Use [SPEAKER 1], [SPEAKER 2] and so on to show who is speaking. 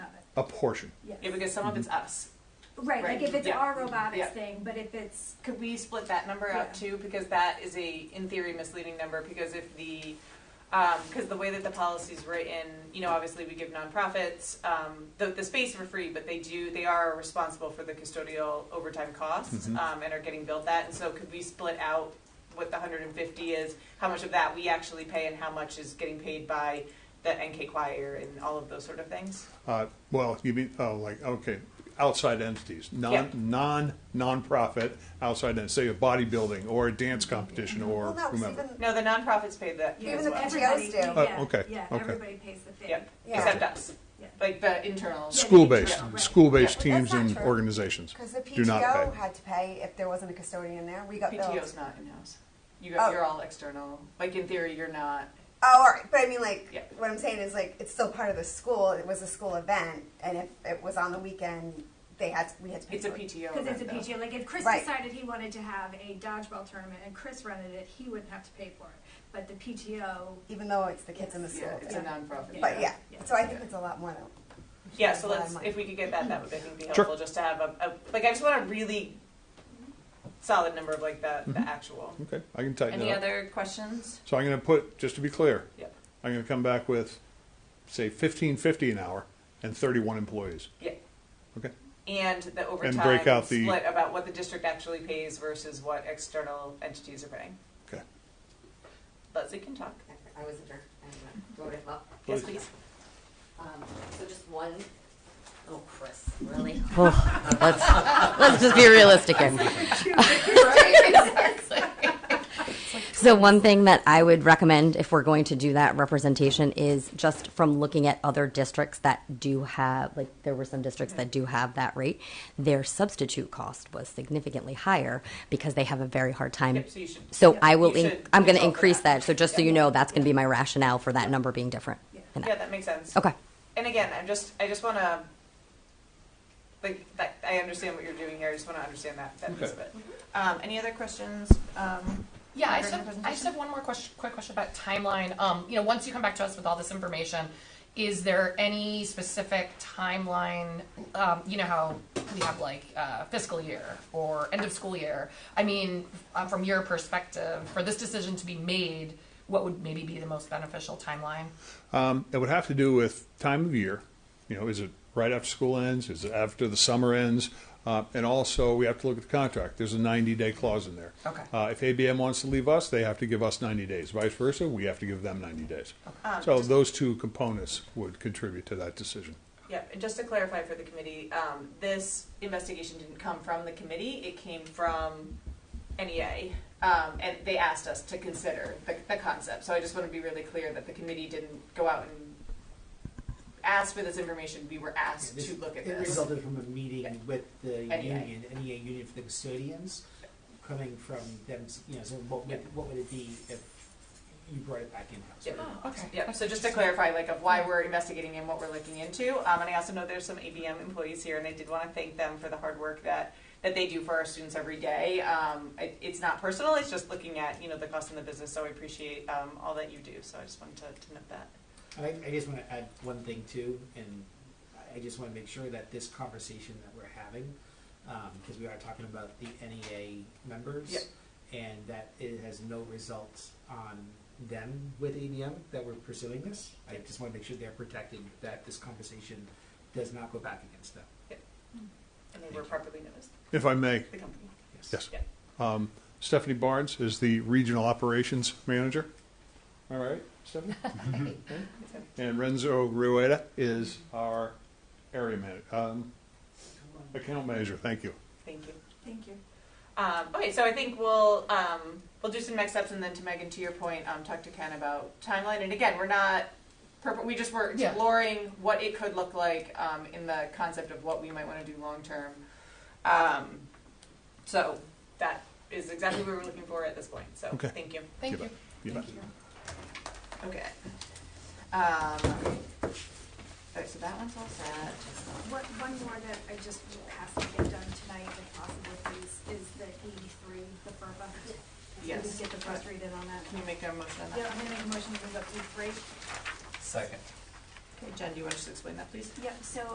[SPEAKER 1] a portion.
[SPEAKER 2] Yes.
[SPEAKER 3] Yeah, because some of it's us.
[SPEAKER 2] Right, like
[SPEAKER 3] right,
[SPEAKER 2] if it's
[SPEAKER 3] yeah,
[SPEAKER 2] our robotics
[SPEAKER 3] yeah.
[SPEAKER 2] thing, but if it's,
[SPEAKER 3] Could we split that number out
[SPEAKER 2] Yeah.
[SPEAKER 3] too? Because that is a, in theory, misleading number because if the, because the way that the policy's written, you know, obviously we give nonprofits um, the, the space for free, but they do, they are responsible for the custodial overtime costs
[SPEAKER 1] Mhm.
[SPEAKER 3] um, and are getting billed that. And so could we split out what the 150 is, how much of that we actually pay and how much is getting paid by the NK choir and all of those sort of things?
[SPEAKER 1] Uh, well, you mean, oh, like, okay, outside entities, non,
[SPEAKER 3] Yeah.
[SPEAKER 1] non, nonprofit outside entities, say a bodybuilding or a dance competition or
[SPEAKER 4] Well, no, 'cause
[SPEAKER 1] whomever.
[SPEAKER 4] even-
[SPEAKER 3] No, the nonprofits pay that
[SPEAKER 2] yeah,
[SPEAKER 3] as
[SPEAKER 4] the
[SPEAKER 3] well.
[SPEAKER 4] PTOs
[SPEAKER 2] everybody,
[SPEAKER 4] do.
[SPEAKER 1] Oh,
[SPEAKER 2] yeah,
[SPEAKER 1] okay,
[SPEAKER 2] yeah,
[SPEAKER 1] okay.
[SPEAKER 2] everybody pays the fee.
[SPEAKER 3] Yep,
[SPEAKER 4] Yeah.
[SPEAKER 3] except us,
[SPEAKER 2] Yeah.
[SPEAKER 3] like the internal.
[SPEAKER 1] School-based,
[SPEAKER 2] Yeah, right.
[SPEAKER 1] school-based
[SPEAKER 4] Yeah, but that's
[SPEAKER 1] teams and
[SPEAKER 4] not true.
[SPEAKER 1] organizations.
[SPEAKER 4] Because the
[SPEAKER 1] Do not
[SPEAKER 4] PTO
[SPEAKER 1] pay.
[SPEAKER 4] had to pay if there wasn't a custodian there. We got billed.
[SPEAKER 3] PTO's not in-house. You got,
[SPEAKER 4] Oh.
[SPEAKER 3] you're all external. Like in theory, you're not.
[SPEAKER 4] Oh, all right. But I mean, like,
[SPEAKER 3] Yeah.
[SPEAKER 4] what I'm saying is, like, it's still part of the school. It was a school event, and if it was on the weekend, they had we had to pay.
[SPEAKER 3] It's a
[SPEAKER 4] for it.
[SPEAKER 3] PTO.
[SPEAKER 2] Because it's a
[SPEAKER 3] event, though.
[SPEAKER 2] PTO, like if Chris
[SPEAKER 4] Right.
[SPEAKER 2] decided he wanted to have a dodgeball tournament and Chris rented it, he wouldn't have to pay for it, but the PTO,
[SPEAKER 4] even though it's the kids in the school.
[SPEAKER 3] Yeah, it's a
[SPEAKER 4] but-
[SPEAKER 3] nonprofit.
[SPEAKER 4] But yeah,
[SPEAKER 2] Yeah.
[SPEAKER 4] so I think it's a lot more than.
[SPEAKER 3] Yeah, so
[SPEAKER 4] a lot of
[SPEAKER 3] let's,
[SPEAKER 4] money.
[SPEAKER 3] if we could get that, that would, I think, be
[SPEAKER 1] Sure.
[SPEAKER 3] helpful, just to have a, a, like, I just want a really solid number of like the, the
[SPEAKER 5] Mm-hmm.
[SPEAKER 3] actual.
[SPEAKER 1] Okay, I can tighten
[SPEAKER 3] Any
[SPEAKER 1] it up.
[SPEAKER 3] other questions?
[SPEAKER 1] So I'm gonna put, just to be clear,
[SPEAKER 3] Yep.
[SPEAKER 1] I'm gonna come back with, say, fifteen fifty an hour and thirty-one employees.
[SPEAKER 3] Yeah.
[SPEAKER 1] Okay.
[SPEAKER 3] And the overtime
[SPEAKER 1] break out the-
[SPEAKER 3] split about what the district actually pays versus what external entities are paying.
[SPEAKER 1] Okay.
[SPEAKER 3] Leslie can talk.
[SPEAKER 6] I was adjourned, I wrote it up.
[SPEAKER 3] Yes,
[SPEAKER 1] Please.
[SPEAKER 3] please.
[SPEAKER 6] Um, so just one, oh, Chris, really?
[SPEAKER 5] Let's just be realistic here.
[SPEAKER 6] Right?
[SPEAKER 5] So one thing that I would recommend if we're going to do that representation is just from looking at other districts that do have, like there were some districts that do have that rate, their substitute cost was significantly higher because they have a very hard time.
[SPEAKER 3] Yep, so you should.
[SPEAKER 5] So
[SPEAKER 3] yep,
[SPEAKER 5] I will,
[SPEAKER 3] you
[SPEAKER 5] in-
[SPEAKER 3] should
[SPEAKER 5] I'm going to
[SPEAKER 3] consult for
[SPEAKER 5] increase that. So just so you know, that's going to be my rationale for that number being different. in that.
[SPEAKER 3] Yeah, that makes sense.
[SPEAKER 5] Okay.
[SPEAKER 3] and again, I'm just, I just want to, like, that, I understand what you're doing here. I just want to understand that, that piece of it. Um, any other questions? Um,
[SPEAKER 7] Yeah,
[SPEAKER 3] Margaret,
[SPEAKER 7] I just,
[SPEAKER 3] any
[SPEAKER 7] have, I
[SPEAKER 3] presentation?
[SPEAKER 7] just have one more question, quick question about timeline. Um, you know, once you come back to us with all this information, is there any specific timeline? Um, you know how we have like uh, fiscal year or end of school year. I mean, uh, from your perspective, for this decision to be made, what would maybe be the most beneficial timeline?
[SPEAKER 1] Um, it would have to do with time of year. You know, is it right after school ends? Is it after the summer ends? Uh, and also, we have to look at the contract. There's a 90 day clause in there.
[SPEAKER 7] Okay.
[SPEAKER 1] Uh, if ABM wants to leave us, they have to give us 90 days. Vice versa, we have to give them 90 days. so, those two components would contribute to that decision.
[SPEAKER 3] Yeah, and just to clarify for the committee, um, this investigation didn't come from the committee, it came from NEA. Um, and they asked us to consider the, the concept, so I just want to be really clear that the committee didn't go out and ask for this information, we were asked to look at
[SPEAKER 8] It
[SPEAKER 3] this.
[SPEAKER 8] resulted from a meeting with the
[SPEAKER 3] NEA.
[SPEAKER 8] union, NEA union for the custodians, coming from them, you know, so what would, what would it be if you brought it back in-house?
[SPEAKER 3] Yeah.
[SPEAKER 8] right?
[SPEAKER 7] Okay.
[SPEAKER 3] Yeah, so just to clarify, like, of why we're investigating and what we're looking into, um, and I also know there's some ABM employees here, and I did want to thank them for the hard work that, that they do for our students every day. Um, it, it's not personal, it's just looking at, you know, the cost in the business, so I appreciate, um, all that you do, so I just wanted to, to note that.
[SPEAKER 8] And I, I just wanna add one thing too, and I- I just wanna make sure that this conversation that we're having, um, because we are talking about the NEA members.
[SPEAKER 3] Yep.
[SPEAKER 8] And that it has no results on them with ABM that we're pursuing this. I just wanna make sure they're protected, that this conversation does not go back against them,
[SPEAKER 3] And they were properly noticed,
[SPEAKER 1] If I may,
[SPEAKER 3] the company.
[SPEAKER 8] yes.
[SPEAKER 1] Yes.
[SPEAKER 3] Yeah.
[SPEAKER 1] Um, Stephanie Barnes is the regional operations manager. All right, Stephanie. and Renzo Rueda is our area manager, um, account manager. Thank you.
[SPEAKER 3] Thank you.
[SPEAKER 2] thank you.
[SPEAKER 3] Um, okay, so I think we'll um, we'll do some next steps, and then to Megan, to your point, um, talk to Ken about timeline. And again, we're not purpo- we just were
[SPEAKER 7] Yeah.
[SPEAKER 3] exploring what it could look like um, in the concept of what we might want to do long term. Um, so that is exactly what we're looking for at this point. So
[SPEAKER 1] Okay.
[SPEAKER 3] thank you.
[SPEAKER 7] Thank
[SPEAKER 1] Yeah.
[SPEAKER 7] you.
[SPEAKER 1] You bet.
[SPEAKER 3] Okay. Um, okay, so that one's all set.
[SPEAKER 2] What, one more that I just has to get done tonight if possible, please, is the eighty-three, the FERPA. If we
[SPEAKER 3] Yes.
[SPEAKER 2] Get the first read in on
[SPEAKER 3] Can
[SPEAKER 2] that.
[SPEAKER 3] you make a motion on that?
[SPEAKER 2] Yeah, I'm gonna make a motion to move up to three.
[SPEAKER 9] Second.
[SPEAKER 3] Okay, Jen, do you want to just explain that, please?
[SPEAKER 2] Yep, so